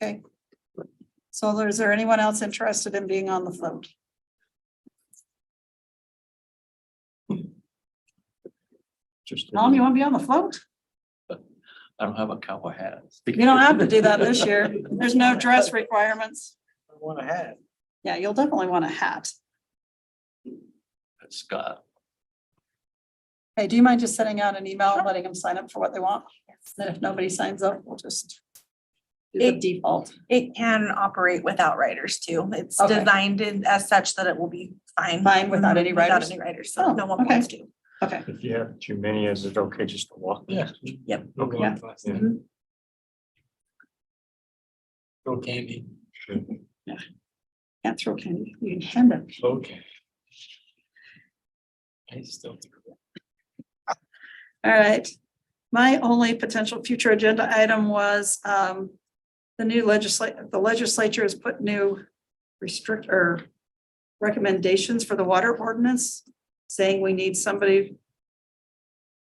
Okay. So is there anyone else interested in being on the float? Just- Tom, you want to be on the float? I don't have a cowboy hat. You don't have to do that this year. There's no dress requirements. Want a hat. Yeah, you'll definitely want a hat. Scott, Hey, do you mind just sending out an email and letting them sign up for what they want? Then if nobody signs up, we'll just do the It- default. It can operate without writers too. It's Okay. designed in- as such that it will be fine. Mm-hmm. Fine without any writers? Without any writers, Oh, so no one okay. wants to. Okay, If you have too many, is it okay just to walk? Yeah. Yep. Okay. Mm-hmm. Yeah. Yeah. go candy. can't throw candy. You can hand it. Okay. I still. All right. My only potential future agenda item was um. The new legislature, the legislature has put new restrict or. Recommendations for the water ordinance, saying we need somebody.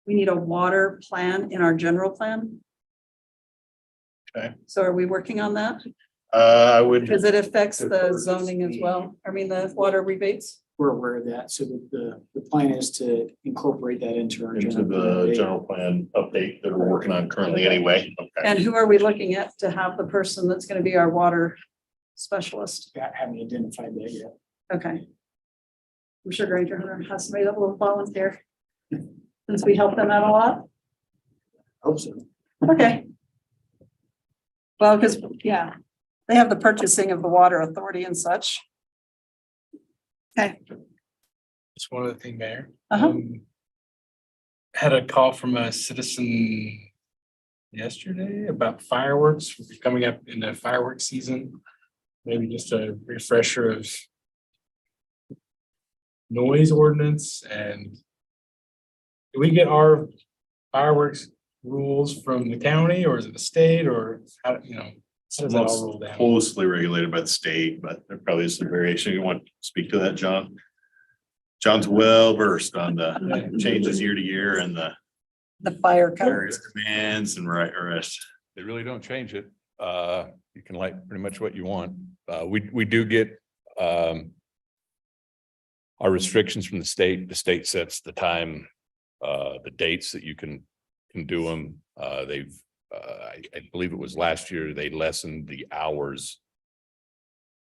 We need a water plan in our general plan. Okay. So are we working on that? Uh, I would. Because it affects the zoning as well. I mean, the water rebates. we're aware of that, so the, the, the plan is to incorporate that into our. into general plan. the general plan update that we're working on currently anyway. Okay. And who are we looking at to have the person that's gonna be our water specialist? I Haven't identified that yet. Okay. I'm sure Granger Hunter has somebody that will volunteer. Since we help them out a lot. Hope so. Okay. Well, because, yeah, they have the purchasing of the water authority and such. Just one other thing, Mayor. Uh-huh. Um, Had a call from a citizen yesterday about fireworks coming up in the fireworks season. Maybe just a refresher of noise ordinance and do we get our fireworks rules from the county or is it the state or how, you know? How does that all roll down? Closely regulated by the state, but there probably is some variation. You want to speak to that, John? John's well versed on the changes year to year and the The fire code. various commands and right arrest. They really don't change it. Uh, you can light pretty much what you want. Uh, we, we do get, um, our restrictions from the state, the state sets the time, uh, the dates that you can, can do them. Uh, they've, uh, I, I believe it was last year, they lessened the hours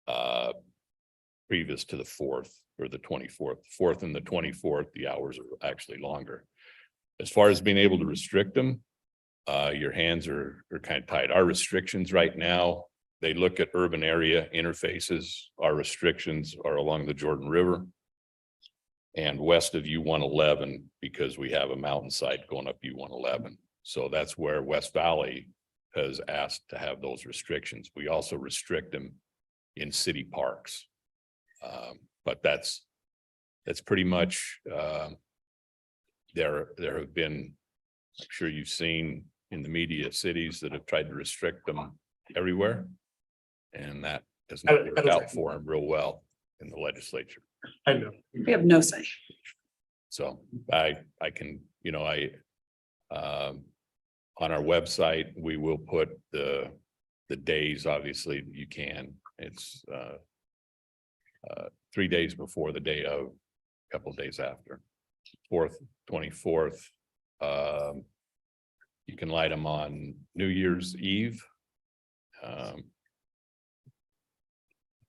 uh, previous to the fourth or the twenty-fourth, fourth and the twenty-fourth, the hours are actually longer. As far as being able to restrict them, uh, your hands are, are kind of tied. Our restrictions right now, they look at urban area interfaces. Our restrictions are along the Jordan River. And west of U one eleven, because we have a mountainside going up U one eleven. So that's where West Valley has asked to have those restrictions. We also restrict them in city parks. Um, but that's, that's pretty much, uh, there, there have been I'm sure you've seen in the media cities that have tried to restrict them everywhere. And that has not worked out for them real well in the legislature. I know. We have no say. So I, I can, you know, I, um, on our website, we will put the, the days, obviously, that you can. It's, uh, uh, three days before the day of, a couple of days after, fourth, twenty-fourth. Um, you can light them on New Year's Eve. Um, I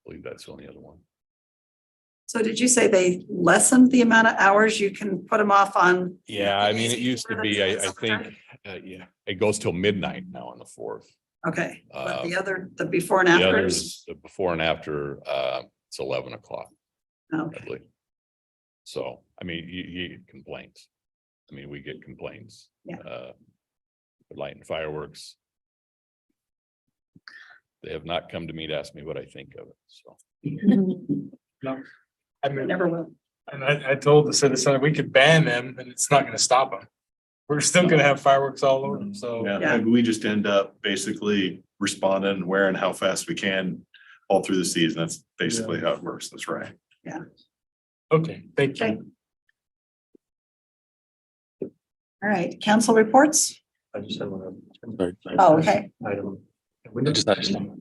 believe that's the only other one. So did you say they lessened the amount of hours you can put them off on? Yeah, I mean, it used to be, I, I think, uh, yeah, it goes till midnight now on the fourth. Okay, but the Uh, other, the before and The afters? others, the before and after, uh, it's eleven o'clock, I Okay, believe. So, I mean, you, you get complaints. I mean, we get complaints. Yeah. uh, for Lighting fireworks. They have not come to me to ask me what I think of it, so. I mean, never will. And I, I told the citizen, we could ban them and it's not gonna stop them. We're still gonna have fireworks all over them, so. Yeah. Yeah, and we just end up basically responding, and wearing how fast we can all through the season. That's basically how it works. That's right. Okay, thank Okay. you. All right, council reports? I just have one. other- Oh, okay. Item, Windows.